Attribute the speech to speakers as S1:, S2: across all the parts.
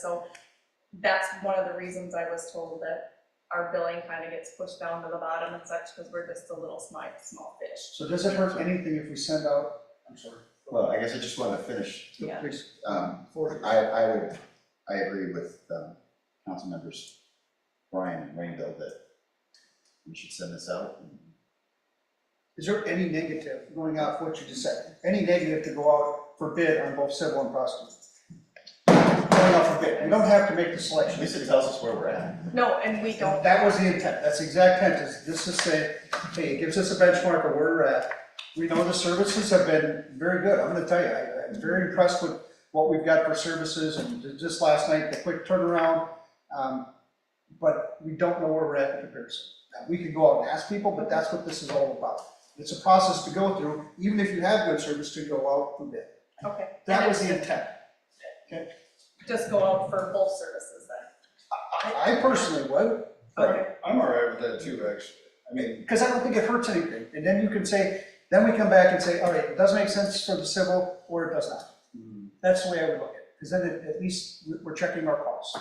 S1: So that's one of the reasons I was told that our billing kind of gets pushed down to the bottom and such, because we're just a little small, small fish.
S2: So does it hurt anything if we send out, I'm sorry,
S3: Well, I guess I just wanna finish,
S1: Yeah.
S2: please,
S3: um,
S2: for,
S3: I, I would, I agree with, um, council members Brian and Rainville that we should send this out.
S2: is there any negative going out for what you just said? Any negative to go out for bid on both civil and prosecutor? Going out for bid, you don't have to make the
S3: At
S2: selection.
S3: least it tells us where we're at.
S1: No, and we don't,
S2: That was the intent, that's the exact intent, is this is say, hey, it gives us a benchmark of where we're at. We know the services have been very good, I'm gonna tell you, I, I'm very impressed with what we've got for services, and ju- just last night, the quick turnaround. Um, But we don't know where we're at in comparison. Now, We could go out and ask people, but that's what this is all about. It's a process to go through, even if you have good service, to go out for bid.
S1: okay.
S2: That
S1: And
S2: was
S1: it's
S2: the intent.
S1: Just go out for both services then.
S2: I personally would,
S1: Okay,
S4: I'm all right with that too, actually. I mean,
S2: Because I don't think it hurts anything, and then you can say, then we come back and say, all right, it does make sense for the civil, or it does not.
S3: Hmm.
S2: That's the way I would look at it, because then at, at least we- we're checking our costs.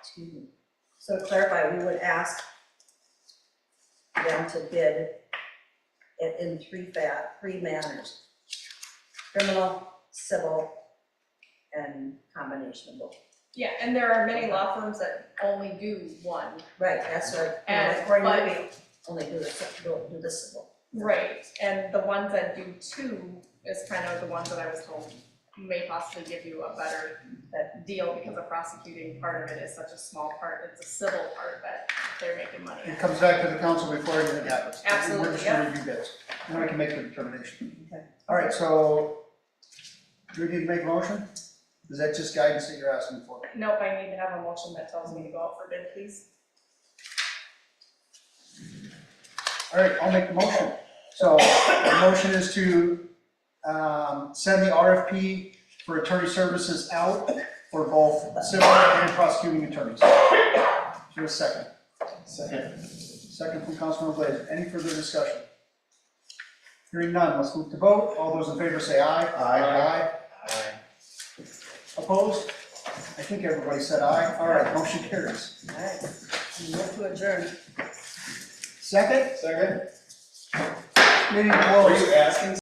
S5: Excuse me. So to clarify, we would ask them to bid in, in three fa, three manners. Criminal, civil, and combination of both.
S1: yeah, and there are many law firms that only do one.
S5: Right, that's right.
S1: And-
S5: According to
S1: but-
S5: me, only do the, ci- don't do the civil.
S1: Right, and the ones that do two is kind of the ones that I was told may possibly give you a better uh, deal, because the prosecuting part of it is such a small part, it's a civil part that they're making money on.
S2: It comes back to the council before anything happens. We're
S1: Absolutely,
S2: just
S1: yeah.
S2: gonna review bids, and then we can make the determination.
S5: Okay.
S2: All right, so, do we need to make a motion? Is that just guidance that you're asking for?
S1: Nope, I need to have a motion that tells me to go out for bid, please.
S2: All right, I'll make the motion. So the motion is to um, send the RFP for attorney services out for both civil and prosecuting attorneys. Is there a second?
S3: Second.
S2: Second from Councilman Blaze. Any further discussion? Hearing none, let's move to vote. All those in favor say aye. Aye.
S3: Aye.
S2: Opposed? I think everybody said aye. All right, motion carries.
S5: All right, move to adjourn.
S2: Second,
S4: second,
S2: meeting
S4: were
S2: closed.
S4: you asking